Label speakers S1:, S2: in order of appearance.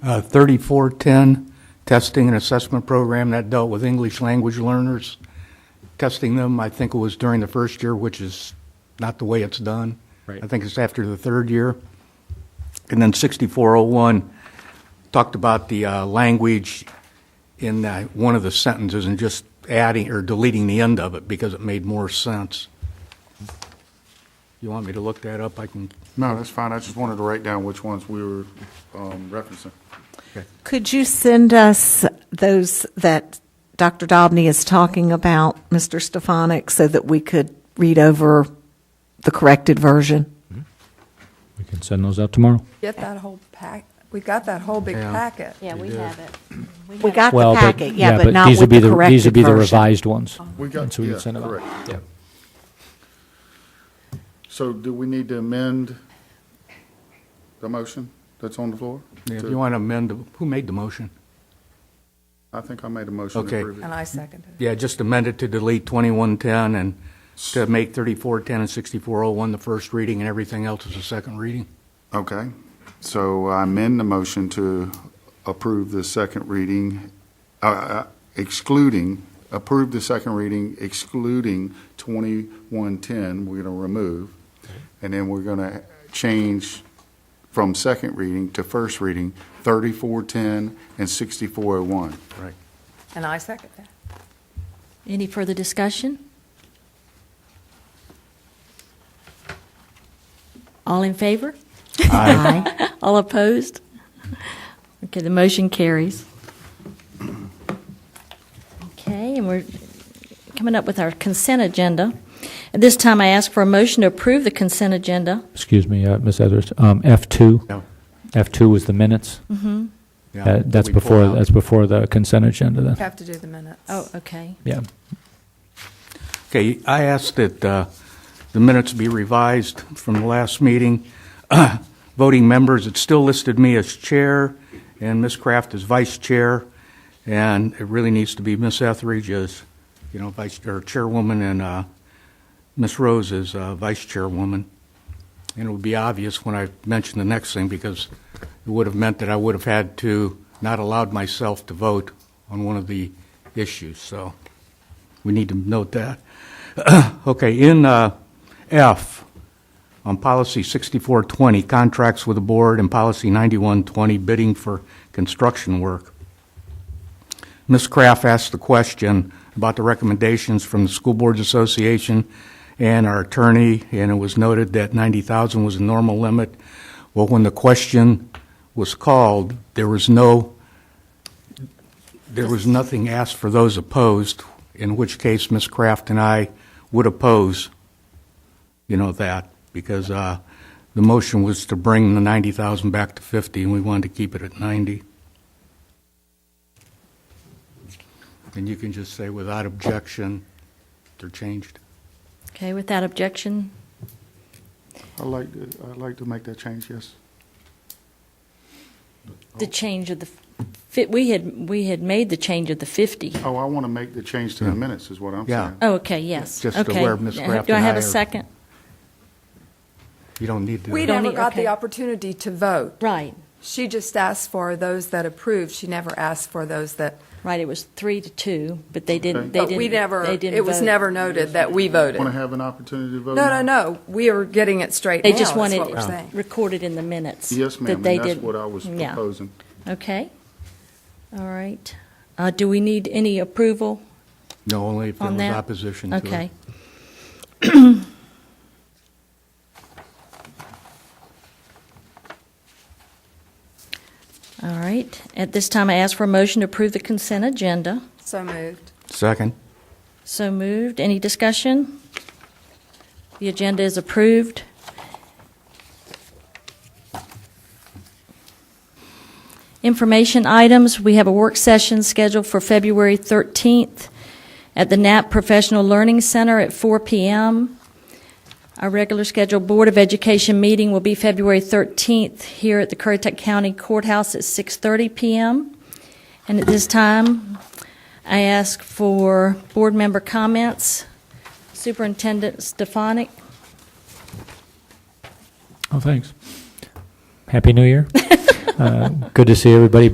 S1: uh, 3410, testing and assessment program that dealt with English language learners, testing them, I think it was during the first year, which is not the way it's done.
S2: Right.
S1: I think it's after the third year. And then 6401 talked about the uh, language in uh, one of the sentences and just adding or deleting the end of it because it made more sense. You want me to look that up? I can,
S3: No, that's fine. I just wanted to write down which ones we were um, referencing.
S4: Could you send us those that Dr. Dobney is talking about, Mr. Stefanik, so that we could read over the corrected version?
S2: We can send those out tomorrow.
S5: Get that whole pack, we got that whole big
S1: Yeah.
S5: packet.
S6: Yeah, we have it.
S4: We got the
S2: Well, but-
S4: packet, yeah, but not
S2: these would
S4: with
S2: be
S4: the corrected version. Oh.
S2: These would be the revised ones.
S3: We got-
S2: And so we can
S3: yeah,
S2: send them out.
S3: correct.
S2: Yeah.
S3: So do we need to amend the motion that's on the floor?
S1: if you want to amend, the- who made the motion?
S3: I think I made a motion to
S1: Okay.
S3: approve it.
S5: And I seconded it.
S1: Yeah, just amend it to delete 2110 and to make 3410 and 6401 the first reading and everything else is the second reading.
S3: Okay. So I amend the motion to approve the second reading, uh, uh, excluding, approve the second reading excluding 2110, we're going to remove. And then we're going to change from second reading to first reading, 3410 and 6401.
S1: Right.
S5: And I second that.
S6: Any further discussion? All in favor?
S4: Aye.
S6: All opposed? Okay, the motion carries. Okay, and we're coming up with our consent agenda. At this time, I ask for a motion to approve the consent agenda.
S2: Excuse me, uh, Ms. Etheridge, um, F2,
S1: Yeah.
S2: F2 was the minutes.
S1: Yeah.
S2: Uh, That's
S1: We pulled
S2: before,
S1: out.
S2: that's before the consent agenda then.
S5: Have to do the minutes.
S6: Oh, okay.
S2: Yeah.
S1: Okay, I asked that uh, the minutes be revised from the last meeting. Voting members, it still listed me as chair and Ms. Kraft as vice chair, and it really needs to be Ms. Etheridge as, you know, vice, or chairwoman, and uh, Ms. Rose as uh, vice chairwoman. And it would be obvious when I mentioned the next thing, because it would have meant that I would have had to, not allowed myself to vote on one of the issues, so we need to note that. Okay, in uh, F, on policy 6420, contracts with the board, and policy 9120, bidding for construction work. Ms. Kraft asked the question about the recommendations from the School Boards Association and our attorney, and it was noted that 90,000 was the normal limit. Well, when the question was called, there was no, there was nothing asked for those opposed, in which case Ms. Kraft and I would oppose, you know, that, because uh, the motion was to bring the 90,000 back to 50, and we wanted to keep it at 90. And you can just say without objection, they're changed.
S6: Okay, without objection,
S3: I'd like to, I'd like to make that change, yes.
S6: the change of the, fi- we had, we had made the change of the 50.
S3: Oh, I want to make the change to the minutes, is what I'm
S1: Yeah.
S3: saying.
S6: Oh, okay, yes.
S1: Just to
S6: Okay. Uh,
S1: where Ms. Graff
S6: Do I
S1: and
S6: have
S1: I
S6: a
S1: are-
S6: second?
S1: You don't need to.
S5: We
S6: don't
S5: never
S6: need-
S5: got the
S6: okay.
S5: opportunity to vote.
S6: Right,
S5: She just asked for those that approved. She never asked for those that,
S6: right, it was three to two, but they didn't, they
S5: but
S6: didn't.
S5: we never,
S6: they didn't
S5: it was
S6: vote.
S5: never noted that we voted.
S3: Want to have an opportunity to vote?
S5: No,
S3: now? Oh.
S5: no, no, we are getting it straight now,
S6: They just
S5: is
S6: wanted
S5: what we're
S6: it
S5: saying.
S6: recorded in the minutes.
S3: Yes,
S6: that
S3: ma'am, and
S6: they
S3: that's
S6: didn't-
S3: what I was
S6: Yeah.
S3: proposing.
S6: Okay, all right. Uh, Do we need any approval
S1: No, only if there
S6: on
S1: was
S6: that?
S1: opposition to it.
S6: Okay. All right, at this time, I ask for a motion to approve the consent agenda.
S5: So moved.
S1: Second.
S6: So moved. Any discussion? The agenda is approved. Information items, we have a work session scheduled for February 13th at the NAP Professional Learning Center at 4 PM. Our regular scheduled Board of Education meeting will be February 13th here at the Currituck County Courthouse at 6:30 PM. And at this time, I ask for board member comments. Superintendent Stefanik?
S2: Oh, thanks. Happy New Year. Uh, Good to see everybody